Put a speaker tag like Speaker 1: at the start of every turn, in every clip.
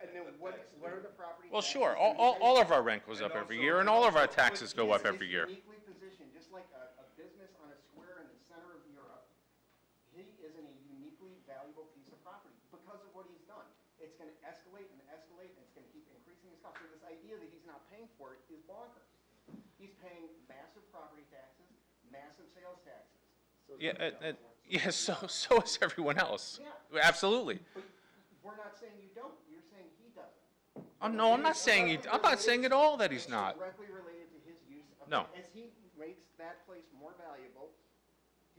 Speaker 1: And then what, what are the property?
Speaker 2: Well,
Speaker 1: taxes
Speaker 2: sure,
Speaker 1: and
Speaker 2: all, all, all
Speaker 1: everything?
Speaker 2: of our rent goes up
Speaker 3: And
Speaker 2: every
Speaker 3: also-
Speaker 2: year, and all of our
Speaker 3: But
Speaker 2: taxes go up
Speaker 1: It's-
Speaker 2: every year.
Speaker 1: It's uniquely positioned, just like a, a business on a square in the center of Europe. He is in a uniquely valuable piece of property because of what he's done. It's gonna escalate and escalate, and it's gonna keep increasing his cost. So this idea that he's not paying for it is bonkers. He's paying massive property taxes, massive sales taxes.
Speaker 2: Yeah, uh, uh, yeah, so, so is everyone else.
Speaker 1: Yeah.
Speaker 2: Absolutely.
Speaker 1: But we're not saying you don't, you're saying he doesn't.
Speaker 2: I'm, Oh, no, I'm not saying, he- I'm not saying at all that he's not.
Speaker 1: It's directly related to his use of.
Speaker 2: No.
Speaker 1: As he makes that place more valuable,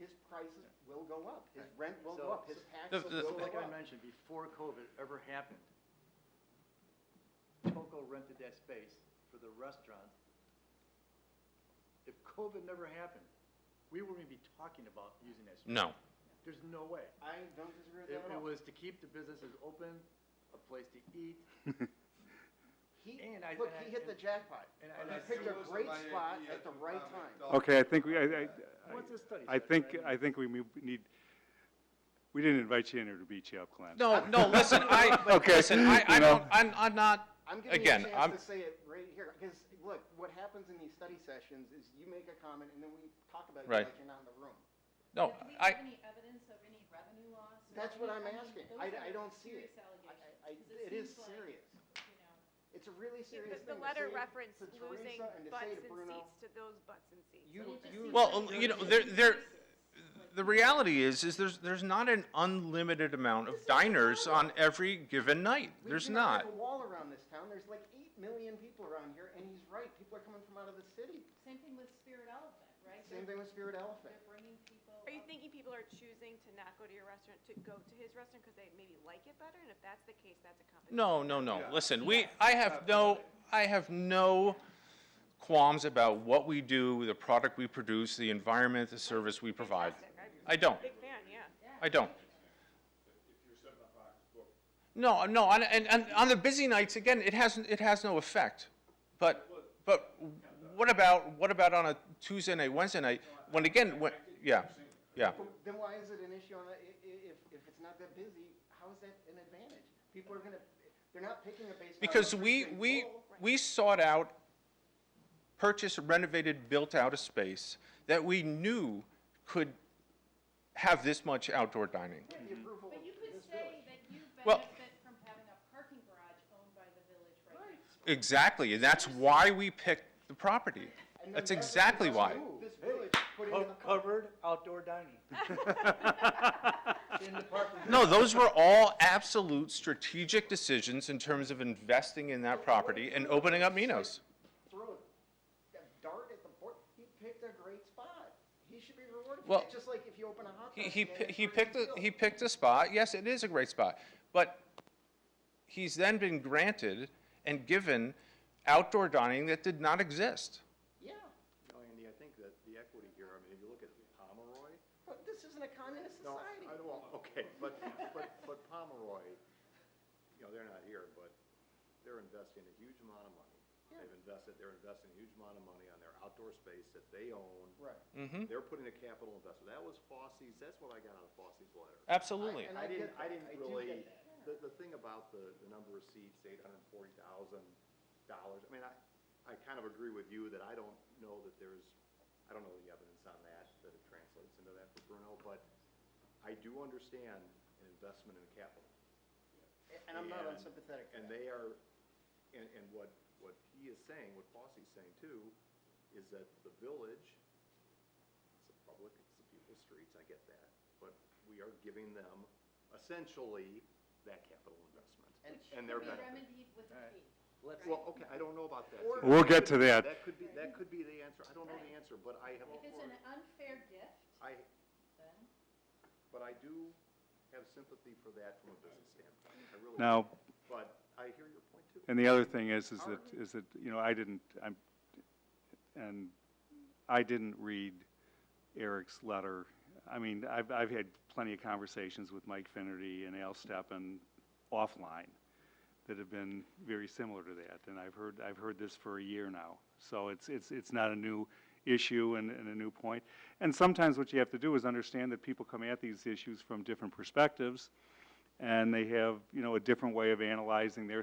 Speaker 1: his prices will go up, his rent will go
Speaker 4: So-
Speaker 1: up, his
Speaker 2: The-
Speaker 1: taxes
Speaker 2: the-
Speaker 1: will
Speaker 4: So
Speaker 1: go
Speaker 4: like I
Speaker 1: up.
Speaker 4: mentioned, before COVID ever happened, Coco rented that space for the restaurant. If COVID never happened, we wouldn't even be talking about using that space.
Speaker 2: No,
Speaker 4: There's no way.
Speaker 1: I don't disagree with
Speaker 4: It
Speaker 1: that at
Speaker 4: it
Speaker 1: all.
Speaker 4: was to keep the businesses open, a place to eat,
Speaker 1: He,
Speaker 4: and I-
Speaker 1: look,
Speaker 4: and
Speaker 1: he
Speaker 4: I-
Speaker 1: hit the jackpot.
Speaker 4: and
Speaker 1: And
Speaker 4: I,
Speaker 1: he
Speaker 4: I,
Speaker 1: picked a great spot at the right time.
Speaker 5: Okay, I think we, I, I,
Speaker 4: what's the study?
Speaker 5: I think, I think we move- need, we didn't invite you in here to beat you up, Glenn.
Speaker 2: no, no, listen, I,
Speaker 5: Okay,
Speaker 2: listen, I, I
Speaker 5: you know.
Speaker 2: don't, I'm, I'm not,
Speaker 1: I'm giving you a
Speaker 2: again, I'm,
Speaker 1: chance to say it right here, because, look, what happens in these study sessions is you make a comment and then we talk about it
Speaker 2: Right.
Speaker 1: like you're not in the room.
Speaker 2: no,
Speaker 6: Do we
Speaker 2: I,
Speaker 6: have any evidence of any revenue loss? or
Speaker 1: That's what I'm
Speaker 6: any- I mean,
Speaker 1: asking.
Speaker 6: those
Speaker 1: I- I
Speaker 6: are
Speaker 1: don't see it.
Speaker 6: serious
Speaker 1: I-
Speaker 6: allegations,
Speaker 1: I, I,
Speaker 6: 'cause
Speaker 1: it is
Speaker 6: seems like,
Speaker 1: serious.
Speaker 6: you know,
Speaker 1: It's a really
Speaker 7: Yeah,
Speaker 1: serious
Speaker 7: but
Speaker 1: thing
Speaker 7: The
Speaker 1: to
Speaker 7: letter
Speaker 1: say
Speaker 7: referenced
Speaker 1: to Teresa
Speaker 7: losing
Speaker 1: and to
Speaker 7: butts
Speaker 1: say to
Speaker 7: and
Speaker 1: Bruno,
Speaker 7: seats to those butts and seats.
Speaker 1: You,
Speaker 6: But it just
Speaker 1: you.
Speaker 6: seems
Speaker 2: well,
Speaker 6: like
Speaker 2: you know,
Speaker 6: they're
Speaker 2: there,
Speaker 6: just
Speaker 2: there,
Speaker 6: cases, like,
Speaker 2: the reality is, is there's, there's not an unlimited amount of diners on every given night.
Speaker 1: we
Speaker 2: There's
Speaker 1: do not
Speaker 2: not.
Speaker 1: have a wall around this town. There's like eight million people around here, and he's right. People are coming from out of the city.
Speaker 6: Same thing with Spirit Elephant, right?
Speaker 1: Same
Speaker 6: They're-
Speaker 1: thing with Spirit Elephant.
Speaker 6: They're bringing people.
Speaker 7: Are you
Speaker 6: up.
Speaker 7: thinking people are choosing to not go to your restaurant, to go to his restaurant because they maybe like it better? And if that's the case, that's a competition.
Speaker 2: No, no, no. Listen, we, I have no, I have no qualms about what we do, the product we produce, the environment, the service we provide.
Speaker 7: Fantastic. I'm
Speaker 2: I don't.
Speaker 7: a big fan, yeah.
Speaker 2: I don't. No, no, and, and, and on the busy nights, again, it has, it has no effect. But, but what about, what about on a Tuesday night, Wednesday night, when again, when, yeah, yeah.
Speaker 1: But then why is it an issue on that? i- i- If, if it's not that busy, how is that an advantage? People are gonna, they're not picking a base.
Speaker 2: Because we, we,
Speaker 1: Oh,
Speaker 2: we sought out, purchased, renovated, built out a space that we knew could have this much outdoor dining.
Speaker 1: The approval
Speaker 6: But you
Speaker 1: of
Speaker 6: could
Speaker 1: this
Speaker 6: say
Speaker 1: village.
Speaker 6: that you
Speaker 2: Well-
Speaker 6: benefit from having a parking garage owned by the village right now.
Speaker 2: Exactly, and that's why we picked the property.
Speaker 1: And then that's
Speaker 2: That's
Speaker 1: what
Speaker 2: exactly
Speaker 1: must
Speaker 2: why.
Speaker 1: do. This village put in
Speaker 4: Co-
Speaker 1: a-
Speaker 4: covered outdoor dining. In the parking lot.
Speaker 2: No, those were all absolute strategic decisions in terms of investing in that property and opening up Minos.
Speaker 1: throw a dart at the board. He picked a great spot. He should be rewarded.
Speaker 2: Well,
Speaker 1: for that. just like if you open a hot
Speaker 2: He,
Speaker 1: dog.
Speaker 2: he,
Speaker 1: stand
Speaker 2: pi-
Speaker 1: and
Speaker 2: he
Speaker 1: throw it
Speaker 2: picked,
Speaker 1: in
Speaker 2: a
Speaker 1: the
Speaker 2: he
Speaker 1: field.
Speaker 2: picked a spot, yes, it is a great spot, but he's then been granted and given outdoor dining that did not exist.
Speaker 1: Yeah,
Speaker 3: No, Oh, Andy, I think that the equity here, I mean, if you look at Pomeroy,
Speaker 1: but this isn't a communist
Speaker 3: no,
Speaker 1: society.
Speaker 3: I don't, okay, but, but, but Pomeroy, you know, they're not here, but they're investing a huge amount of money. They've invested, they're investing a huge amount of money on their outdoor space that they own.
Speaker 1: Right.
Speaker 3: They're putting a capital investment. That was Fosse's, that's what I got out of Fosse's letter.
Speaker 2: Absolutely.
Speaker 1: And I
Speaker 3: I didn't,
Speaker 1: get
Speaker 3: I
Speaker 1: that.
Speaker 3: didn't
Speaker 1: I do
Speaker 3: really,
Speaker 1: get that.
Speaker 3: the, the thing about the, the number of seats, eight hundred and forty thousand dollars, I mean, I, I kind of agree with you that I don't know that there's, I don't know the evidence on that, that it translates into that for Bruno, but I do understand an investment in capital.
Speaker 1: And I'm not
Speaker 3: And-
Speaker 1: unsympathetic to
Speaker 3: And
Speaker 1: that.
Speaker 3: they are, and, and what, what he is saying, what Fosse's saying too, is that the village, it's a public, it's the people's streets, I get that, but we are giving them essentially that capital investment.
Speaker 1: And-
Speaker 3: And
Speaker 6: Could
Speaker 3: they're
Speaker 6: be
Speaker 3: benefiting.
Speaker 6: remedied with a fee.
Speaker 4: Let's-
Speaker 3: Well, okay, I don't know about that.
Speaker 1: Or-
Speaker 5: We'll get to that.
Speaker 3: That could be, that could be the answer. I don't know the
Speaker 6: Right.
Speaker 3: answer, but I have,
Speaker 6: If it's an unfair gift,
Speaker 3: I,
Speaker 6: then.
Speaker 3: but I do have sympathy for that from a business standpoint. I really, do.
Speaker 5: Now,
Speaker 3: but I hear your point too.
Speaker 5: and the other thing is, is that, is that, you know, I didn't, I'm, and I didn't read Eric's letter. I mean, I've, I've had plenty of conversations with Mike Finnerty and Al Steppen offline that have been very similar to that, and I've heard, I've heard this for a year now. So it's, it's, it's not a new issue and, and a new point. And sometimes what you have to do is understand that people come at these issues from different perspectives, and they have, you know, a different way of analyzing their